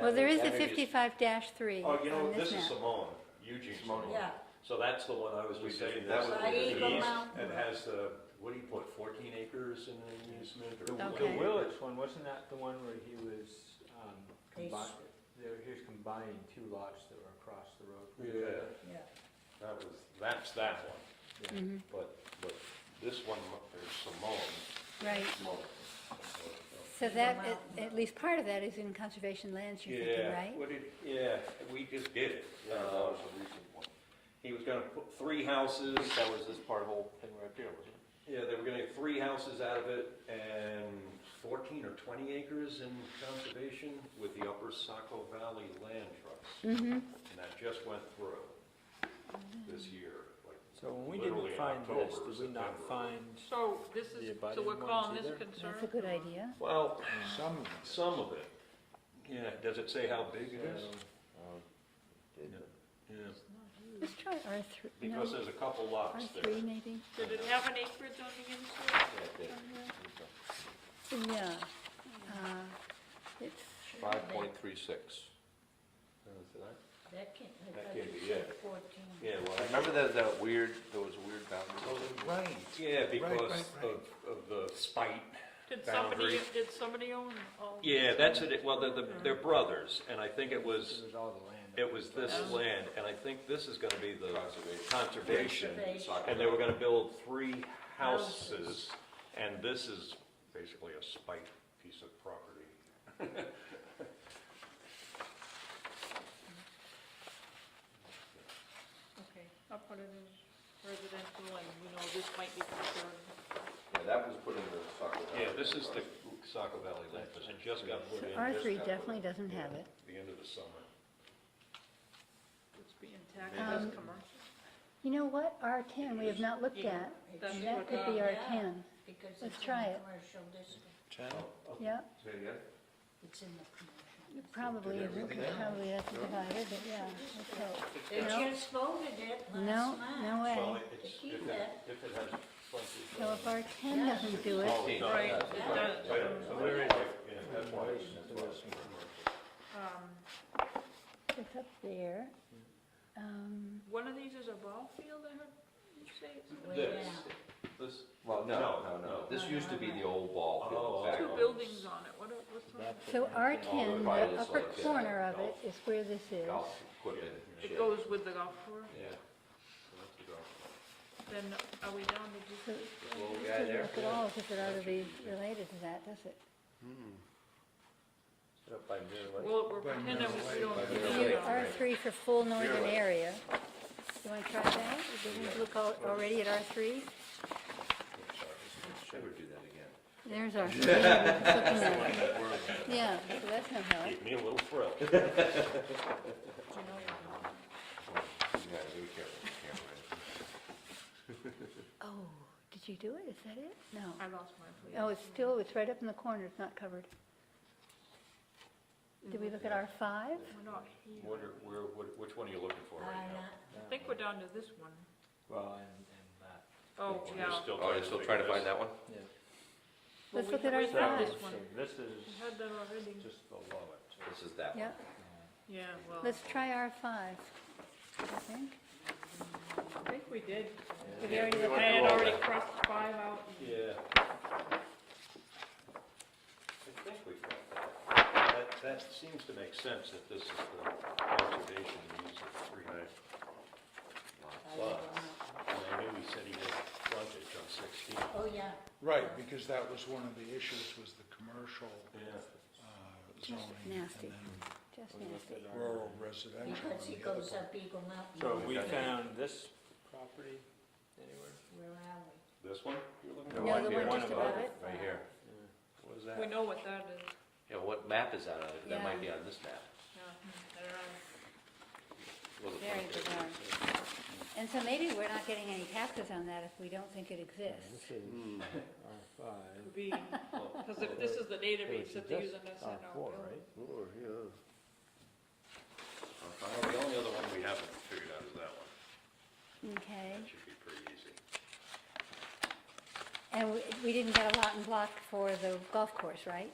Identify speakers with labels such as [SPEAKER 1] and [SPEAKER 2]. [SPEAKER 1] Well, there is a
[SPEAKER 2] That maybe is-
[SPEAKER 1] fifty-five three
[SPEAKER 2] Oh, you know,
[SPEAKER 1] on
[SPEAKER 2] this
[SPEAKER 1] this
[SPEAKER 2] is
[SPEAKER 1] map.
[SPEAKER 2] Simone, Eugene
[SPEAKER 3] Simone.
[SPEAKER 2] Simone.
[SPEAKER 4] Yeah,
[SPEAKER 2] So that's the one I was just saying,
[SPEAKER 3] That
[SPEAKER 2] that's
[SPEAKER 3] was
[SPEAKER 2] the
[SPEAKER 4] the Eagle
[SPEAKER 2] east,
[SPEAKER 4] Mountain.
[SPEAKER 2] and has the, what do you put, fourteen acres in an amusement
[SPEAKER 3] The
[SPEAKER 2] or?
[SPEAKER 3] the
[SPEAKER 1] Okay.
[SPEAKER 3] Willis one, wasn't that the one where he was, um,
[SPEAKER 4] They
[SPEAKER 3] combined,
[SPEAKER 4] s-
[SPEAKER 3] they were, he was combining two lots that were across the road? from each
[SPEAKER 2] Yeah,
[SPEAKER 3] other?
[SPEAKER 4] yeah.
[SPEAKER 2] that was, that's that one,
[SPEAKER 3] Yeah.
[SPEAKER 1] Mhm,
[SPEAKER 2] but, but this one, is Simone,
[SPEAKER 1] Right,
[SPEAKER 2] Simone.
[SPEAKER 1] so
[SPEAKER 4] Eagle
[SPEAKER 1] that, at-
[SPEAKER 4] Mountain.
[SPEAKER 1] at least part of that is in conservation lands, you're thinking,
[SPEAKER 2] Yeah,
[SPEAKER 1] right?
[SPEAKER 2] what did, yeah, we just did it.
[SPEAKER 5] Yeah, that
[SPEAKER 2] Uh,
[SPEAKER 5] was a recent one.
[SPEAKER 2] He was gonna put three houses,
[SPEAKER 5] I think that was this part of the whole thing right there, wasn't it?
[SPEAKER 2] yeah, they were gonna get three houses out of it and fourteen or twenty acres in conservation with the Upper Saco Valley Land Trust.
[SPEAKER 1] Mm-hmm,
[SPEAKER 2] And that just went through this year, like
[SPEAKER 3] So when we
[SPEAKER 2] Literally
[SPEAKER 3] didn't
[SPEAKER 2] in
[SPEAKER 3] find
[SPEAKER 2] October
[SPEAKER 3] this,
[SPEAKER 2] or
[SPEAKER 3] did we not
[SPEAKER 2] September.
[SPEAKER 3] find,
[SPEAKER 6] So this
[SPEAKER 3] The
[SPEAKER 6] is, so
[SPEAKER 3] abiding
[SPEAKER 6] we're
[SPEAKER 3] ones
[SPEAKER 6] calling this
[SPEAKER 3] either?
[SPEAKER 6] concern?
[SPEAKER 1] that's a good idea.
[SPEAKER 2] Well,
[SPEAKER 3] some,
[SPEAKER 2] some of it. Yeah, does it say how big it is? Yeah,
[SPEAKER 1] Let's try R three, no,
[SPEAKER 2] because there's a couple
[SPEAKER 1] R
[SPEAKER 2] lots there.
[SPEAKER 1] three maybe?
[SPEAKER 6] Did it have an acreage on the inside?
[SPEAKER 1] Yeah. uh, It's.
[SPEAKER 5] Five point three six.
[SPEAKER 4] That can't,
[SPEAKER 2] That
[SPEAKER 4] that
[SPEAKER 2] can't be,
[SPEAKER 4] doesn't
[SPEAKER 2] yeah.
[SPEAKER 4] say fourteen.
[SPEAKER 2] Yeah, well, I-
[SPEAKER 5] Remember that, that weird, there was a weird boundary?
[SPEAKER 7] Right.
[SPEAKER 2] yeah, because
[SPEAKER 7] right,
[SPEAKER 2] of, of the spite.
[SPEAKER 6] Did somebody,
[SPEAKER 2] Boundary.
[SPEAKER 6] did somebody own, Oh, own?
[SPEAKER 2] Yeah, that's it, well, they're, they're
[SPEAKER 1] Mm-hmm.
[SPEAKER 2] brothers, and I think it was,
[SPEAKER 3] it was all the land.
[SPEAKER 2] it was this
[SPEAKER 6] Oh.
[SPEAKER 2] land, and I think this is gonna be the
[SPEAKER 5] Conservation.
[SPEAKER 2] conservation.
[SPEAKER 4] Conservation.
[SPEAKER 2] And they were gonna build three houses, and this is basically a spite piece of property.
[SPEAKER 6] Okay, I'll put it in residential and we know this might be concerned.
[SPEAKER 5] Yeah, that was put in the Saco Valley.
[SPEAKER 2] Yeah, this is the Saco Valley land, because it just got put
[SPEAKER 1] So
[SPEAKER 2] in.
[SPEAKER 1] R
[SPEAKER 2] just
[SPEAKER 1] three
[SPEAKER 2] got put
[SPEAKER 1] definitely
[SPEAKER 2] in
[SPEAKER 1] doesn't have
[SPEAKER 2] at
[SPEAKER 1] it.
[SPEAKER 2] The end of the summer.
[SPEAKER 6] It's being taxed as
[SPEAKER 1] Um,
[SPEAKER 6] commercial.
[SPEAKER 1] You know what, R ten, we have not looked
[SPEAKER 6] Yeah.
[SPEAKER 1] at,
[SPEAKER 4] It
[SPEAKER 6] That's
[SPEAKER 4] should
[SPEAKER 1] and that could be
[SPEAKER 4] yeah,
[SPEAKER 1] R ten,
[SPEAKER 4] Because
[SPEAKER 1] Let's
[SPEAKER 4] it's in
[SPEAKER 1] try
[SPEAKER 4] the
[SPEAKER 1] it.
[SPEAKER 4] commercial district,
[SPEAKER 1] yeah,
[SPEAKER 5] Say it again?
[SPEAKER 4] it's in the commercial.
[SPEAKER 1] probably, it would- probably that's divided, but yeah, let's hope.
[SPEAKER 4] They
[SPEAKER 1] No.
[SPEAKER 4] just voted it
[SPEAKER 1] No,
[SPEAKER 4] last night.
[SPEAKER 1] no
[SPEAKER 2] Well,
[SPEAKER 1] way.
[SPEAKER 2] it's,
[SPEAKER 4] To keep
[SPEAKER 2] if it, if it has frontage.
[SPEAKER 1] So
[SPEAKER 2] on
[SPEAKER 1] if R ten doesn't do it,
[SPEAKER 5] Oh, no,
[SPEAKER 6] Right,
[SPEAKER 5] that's-
[SPEAKER 6] it does.
[SPEAKER 2] it. Right, so there is, yeah, that's why it's- that's why it's commercial.
[SPEAKER 6] Um,
[SPEAKER 1] it's up there. Um,
[SPEAKER 6] One of these is a ball field, I heard you say? something?
[SPEAKER 4] Way
[SPEAKER 2] This,
[SPEAKER 4] down.
[SPEAKER 2] this,
[SPEAKER 5] Well, no,
[SPEAKER 2] No,
[SPEAKER 5] no, no,
[SPEAKER 2] no.
[SPEAKER 5] this used to be the old ball
[SPEAKER 2] Oh,
[SPEAKER 5] field back
[SPEAKER 6] Two
[SPEAKER 5] on-
[SPEAKER 6] buildings on it, what, are- what's on it?
[SPEAKER 1] so R ten, the
[SPEAKER 5] Right, it's
[SPEAKER 1] upper
[SPEAKER 5] like, uh,
[SPEAKER 1] corner of it
[SPEAKER 5] golf.
[SPEAKER 1] is where this is.
[SPEAKER 5] Golf equipment. and
[SPEAKER 6] It
[SPEAKER 5] shit.
[SPEAKER 6] goes with the golf course,
[SPEAKER 5] Yeah. So that's the golf.
[SPEAKER 6] then are we down to just?
[SPEAKER 1] So
[SPEAKER 5] Little
[SPEAKER 1] this
[SPEAKER 5] guy
[SPEAKER 1] doesn't
[SPEAKER 5] there.
[SPEAKER 1] look at all as if it ought to be related to that, does it?
[SPEAKER 5] Set up by Miller Lake.
[SPEAKER 6] Well, we're pretending we don't.
[SPEAKER 1] You
[SPEAKER 6] know.
[SPEAKER 1] R three for full northern area. You wanna try that? Didn't we look al- already at R three?
[SPEAKER 5] Never do that again.
[SPEAKER 1] There's R three. Yeah, so that's no help.
[SPEAKER 2] gave me a little thrill.
[SPEAKER 5] Yeah, be careful, be careful.
[SPEAKER 1] Oh, did you do it? Is that it? No.
[SPEAKER 6] I lost my place.
[SPEAKER 1] Oh, it's still, it's right up in the corner, it's not covered. Did we look at R five?
[SPEAKER 6] We're not here.
[SPEAKER 2] What are, where, what- which one are you looking for
[SPEAKER 4] I
[SPEAKER 2] right now?
[SPEAKER 6] I
[SPEAKER 4] not-
[SPEAKER 6] think we're down to this one.
[SPEAKER 3] Well, and, and that.
[SPEAKER 6] Oh,
[SPEAKER 2] Or you're
[SPEAKER 6] yeah.
[SPEAKER 2] still
[SPEAKER 5] Oh, you're still trying to find
[SPEAKER 2] figure
[SPEAKER 5] that one?
[SPEAKER 3] Yeah.
[SPEAKER 6] Well,
[SPEAKER 1] Let's
[SPEAKER 6] we
[SPEAKER 1] look at
[SPEAKER 6] had-
[SPEAKER 1] our
[SPEAKER 6] we had
[SPEAKER 1] size.
[SPEAKER 6] This one,
[SPEAKER 3] So this
[SPEAKER 6] we
[SPEAKER 3] is
[SPEAKER 6] had that already,
[SPEAKER 3] just below it.
[SPEAKER 5] This is that one.
[SPEAKER 1] Yeah,
[SPEAKER 6] yeah, well,
[SPEAKER 1] let's try R five, I think.
[SPEAKER 6] I think we did.
[SPEAKER 1] Did we already look
[SPEAKER 6] I
[SPEAKER 1] at
[SPEAKER 6] had already crossed five out.
[SPEAKER 2] this? Yeah. I think we've got that. That, that seems to make sense if this is the conservation use of three lots. And I knew he said he had frontage on sixteen.
[SPEAKER 4] Oh, yeah.
[SPEAKER 7] Right, because that was one of the issues, was the commercial
[SPEAKER 2] Yeah.
[SPEAKER 7] uh, zoning.
[SPEAKER 1] Nasty.
[SPEAKER 7] And then
[SPEAKER 1] Just nasty.
[SPEAKER 7] rural residential.
[SPEAKER 4] Because
[SPEAKER 7] on
[SPEAKER 4] he
[SPEAKER 7] the other
[SPEAKER 4] goes up Eagle Mountain.
[SPEAKER 3] So we
[SPEAKER 5] Okay.
[SPEAKER 3] found this property anywhere?
[SPEAKER 4] Where are we?
[SPEAKER 2] This one you're looking
[SPEAKER 5] There
[SPEAKER 1] No,
[SPEAKER 5] might
[SPEAKER 1] the
[SPEAKER 5] be
[SPEAKER 1] one
[SPEAKER 5] one
[SPEAKER 1] just
[SPEAKER 5] above
[SPEAKER 1] above
[SPEAKER 5] it,
[SPEAKER 1] it.
[SPEAKER 5] Right here. What is that?
[SPEAKER 6] We know what that is.
[SPEAKER 5] Yeah, what map is that on? That might be on this map.
[SPEAKER 6] Yeah, I don't know.
[SPEAKER 5] Well, the
[SPEAKER 1] Very
[SPEAKER 5] front page.
[SPEAKER 1] bizarre. And so maybe we're not getting any taxes on that if we don't think it exists.
[SPEAKER 3] This is R five.
[SPEAKER 6] Could be, because uh, if this is the database that they're using, that's not our
[SPEAKER 3] four,
[SPEAKER 6] bill.
[SPEAKER 3] right?
[SPEAKER 2] for. The only other one we haven't figured out is that one.
[SPEAKER 1] Okay,
[SPEAKER 2] That should be pretty easy.
[SPEAKER 1] and we, we didn't get a lot and block for the golf course, right?